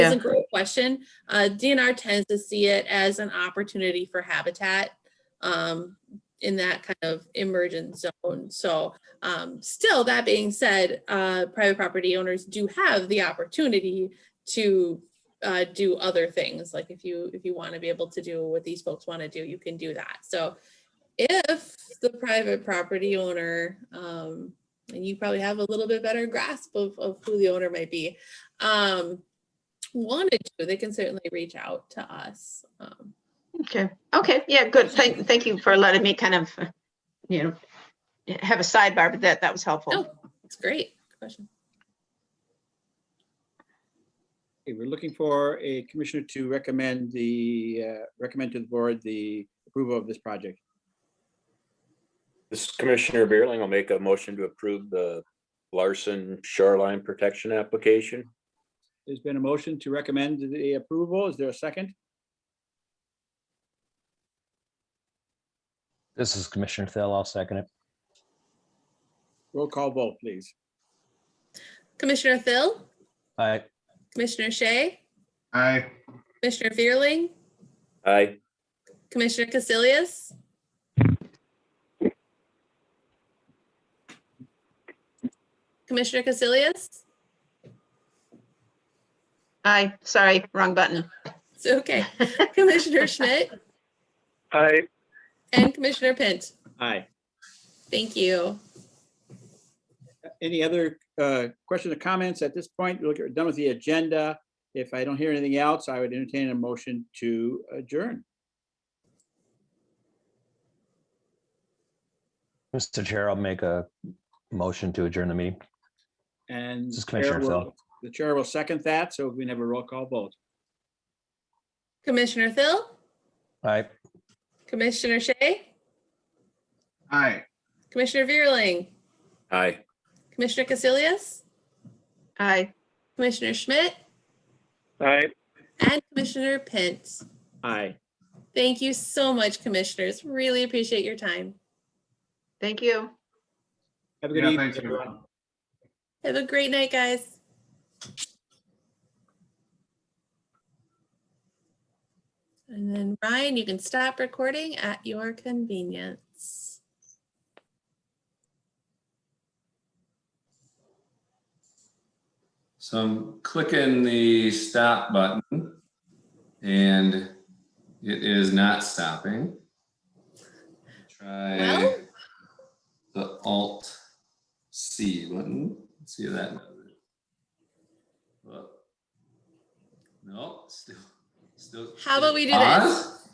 That's a great question. Uh, DNR tends to see it as an opportunity for habitat um, in that kind of emergent zone. So um, still, that being said, uh, private property owners do have the opportunity to uh, do other things. Like if you, if you want to be able to do what these folks want to do, you can do that. So if the private property owner, um, and you probably have a little bit better grasp of, of who the owner might be, um, wanted to, they can certainly reach out to us. Um, Okay, okay, yeah, good. Thank, thank you for letting me kind of, uh, you know, have a sidebar, but that, that was helpful. No, it's great. Good Question. Okay, we're looking for a commissioner to recommend the, uh, recommend to the board the approval of this project. This is Commissioner Beerling will make a motion to approve the Larson Shoreline Protection Application. There's been a motion to recommend the approval. Is there a second? This is Commissioner Thell. I'll second it. Roll call vote, please. Commissioner Phil, Aye. Commissioner Shea, Aye. Commissioner Fearling, Aye. Commissioner Casilius, Commissioner Casilius? Aye, sorry, wrong button. It's okay. Commissioner Schmidt Aye. and Commissioner Pint. Aye. Thank you. Any other uh, questions or comments at this point? Look, we're done with the agenda. If I don't hear anything else, I would entertain a motion to adjourn. Mr. Chair, I'll make a motion to adjourn the meeting. And This is the chair Commissioner will- Thel. the chair will second that, so we can have a roll call vote. Commissioner Phil, Aye. Commissioner Shea, Aye. Commissioner Fearling, Aye. Commissioner Casilius, Aye, Commissioner Schmidt, Aye. and Commissioner Pence. Aye. Thank you so much, commissioners. Really appreciate your time. thank you. Have a good Yeah, evening, thanks, everyone. everyone. Have a great night, guys. And then Ryan, you can stop recording at your convenience. So I'm clicking Um, the stop button and it is not stopping. Try Well? the Alt C button, Let's see if that. Well, No, still, still. How about we do this? Pause?